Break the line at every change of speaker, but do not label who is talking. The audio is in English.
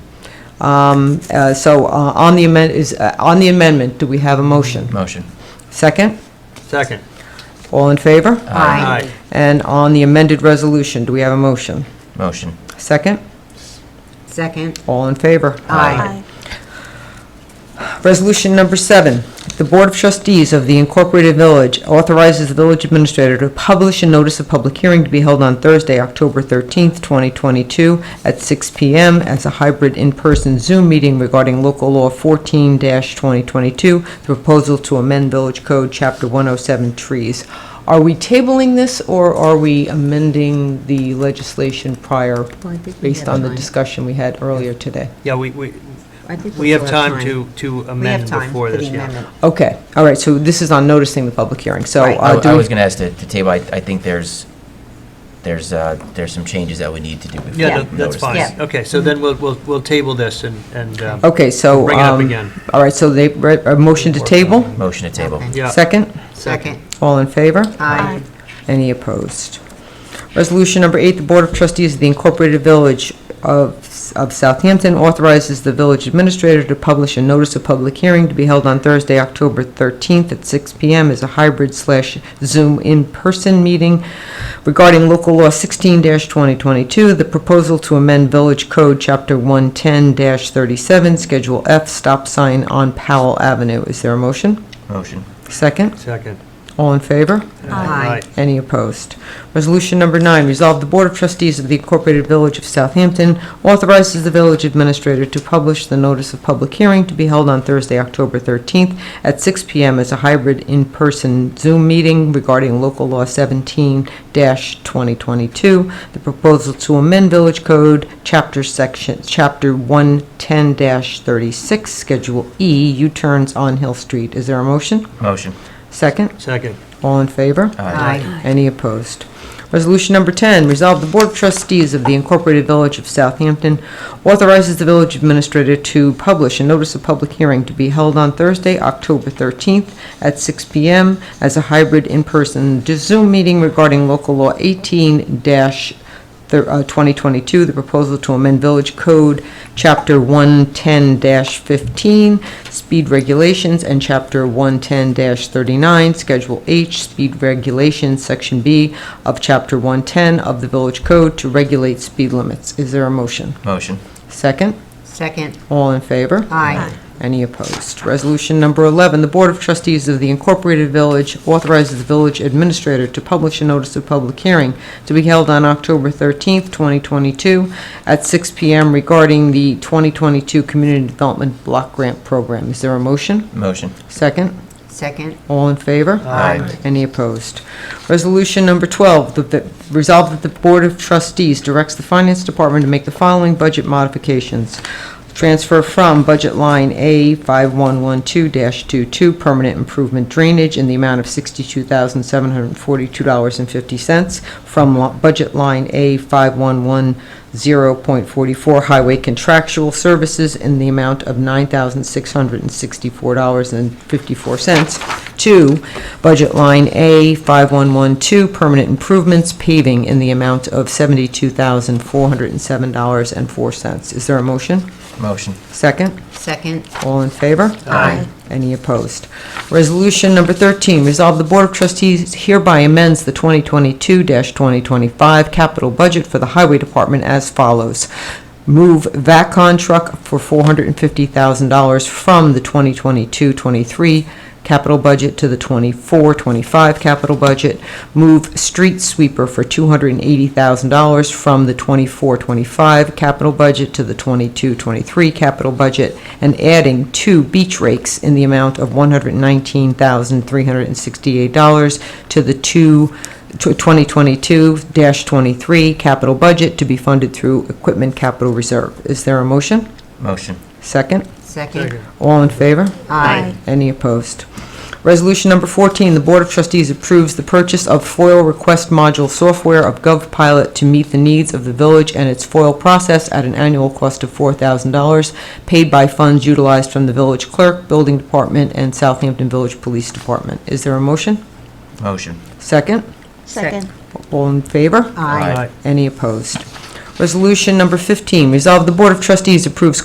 Um, uh, So uh, on the amend, is, uh, on the amendment, do we have a motion?
Motion.
Second?
Second.
All in favor?
Aye.
And on the amended resolution, do we have a motion?
Motion.
Second?
Second.
All in favor?
Aye.
Resolution number seven, the Board of Trustees of the Incorporated Village authorizes the village administrator to publish a notice of public hearing to be held on Thursday, October 13th, 2022, at 6 PM as a hybrid in-person Zoom meeting regarding local law 14-2022, the proposal to amend Village Code, Chapter 107, trees. Are we tabling this, or are we amending the legislation prior,
Well, I think we
based
have
on the
time.
discussion we had earlier today?
Yeah, we, we,
I think
we have
still
time to, to
We have
amend
time for
before
the
this, yeah.
amendment.
Okay, all right, so this is on noticing the public hearing, so.
Right.
uh,
I
do
I
we-
was going to ask the the table, I I think there's, there's, uh, there's some changes that we need to do before.
Yeah,
we
that- that's
notice
fine.
this.
Yeah.
Okay, so then we'll, we'll, we'll table this and, and, um,
Okay, so.
Bring it up
um,
again.
All right, so they, re- a motion to table?
Motion to table.
Okay.
yeah.
Second?
Second.
All in favor?
Aye.
Any opposed? Resolution number eight, the Board of Trustees of the Incorporated Village of of Southampton authorizes the village administrator to publish a notice of public hearing to be held on Thursday, October 13th at 6 PM as a hybrid slash Zoom in-person meeting regarding local law 16-2022, the proposal to amend Village Code, Chapter 110-37, Schedule F, stop sign on Powell Avenue. Is there a motion?
Motion.
Second?
Second.
All in favor?
Aye.
Any opposed? Resolution number nine, resolve the Board of Trustees of the Incorporated Village of Southampton authorizes the village administrator to publish the notice of public hearing to be held on Thursday, October 13th at 6 PM as a hybrid in-person Zoom meeting regarding local law 17-2022, the proposal to amend Village Code, Chapter Section, Chapter 110-36, Schedule E, U-turns on Hill Street. Is there a motion?
Motion.
Second?
Second.
All in favor?
Aye.
Any opposed? Resolution number 10, resolve the Board of Trustees of the Incorporated Village of Southampton authorizes the village administrator to publish a notice of public hearing to be held on Thursday, October 13th at 6 PM as a hybrid in-person Zoom meeting regarding local law 18-2022, uh, the proposal to amend Village Code, Chapter 110-15, speed regulations, and Chapter 110-39, Schedule H, speed regulations, Section B of Chapter 110 of the Village Code to regulate speed limits. Is there a motion?
Motion.
Second?
Second.
All in favor?
Aye.
Any opposed? Resolution number 11, the Board of Trustees of the Incorporated Village authorizes the village administrator to publish a notice of public hearing to be held on October 13th, 2022, at 6 PM regarding the 2022 Community Development Block Grant Program. Is there a motion?
Motion.
Second?
Second.
All in favor?
Aye.
Any opposed? Resolution number 12, the- the- resolve that the Board of Trustees directs the Finance Department to make the following budget modifications. Transfer from budget line A5112-22, permanent improvement drainage, in the amount of $62,742.50, from lo- budget line A5110.44, highway contractual services, in the amount of $9,664.54, to budget line A 5112, permanent improvements paving in the amount of $72,407.04. Is there a motion?
Motion.
Second?
Second.
All in favor?
Aye.
Any opposed? Resolution number 13, resolve the Board of Trustees hereby amends the 2022-2025 capital budget for the Highway Department as follows. Move VACCON truck for $450,000 from the 2022-23 capital budget to the 24-25 capital budget. Move street sweeper for $280,000 from the 24-25 capital budget to the 22-23 capital budget, and adding two beach rakes in the amount of $119,368 to the two 2022-23 capital budget to be funded through equipment capital reserve. Is there a motion?
Motion.
Second?
Second.
Second.
All in favor?
Aye.
Any opposed? Resolution number 14, the Board of Trustees approves the purchase of FOIL request module software of GovPilot to meet the needs of the village and its FOIL process at an annual cost of $4,000, paid by funds utilized from the village clerk, building department, and Southampton Village Police Department. Is there a motion?
Motion.
Second?
Second.
All in favor?
Aye.
Aye.
Any opposed? Resolution number 15, resolve the Board of Trustees approves